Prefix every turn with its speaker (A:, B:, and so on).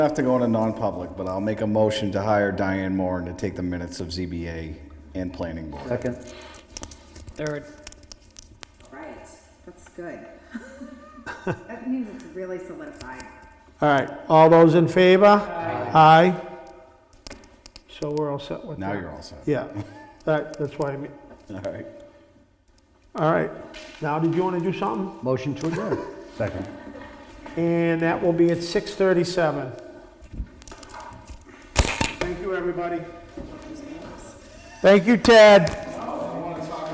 A: Have to go into non-public, but I'll make a motion to hire Diane Moore and to take the minutes of ZBA and planning board.
B: Second.
C: Third.
D: Right, that's good. That means it's really solidified.
E: All right, all those in favor? Aye. So we're all set with that?
A: Now you're all set.
E: Yeah, that, that's why I mean,
A: All right.
E: all right. Now, did you want to do something?
B: Motion to adjourn. Second.
E: And that will be at 6:37. Thank you, everybody. Thank you, Ted.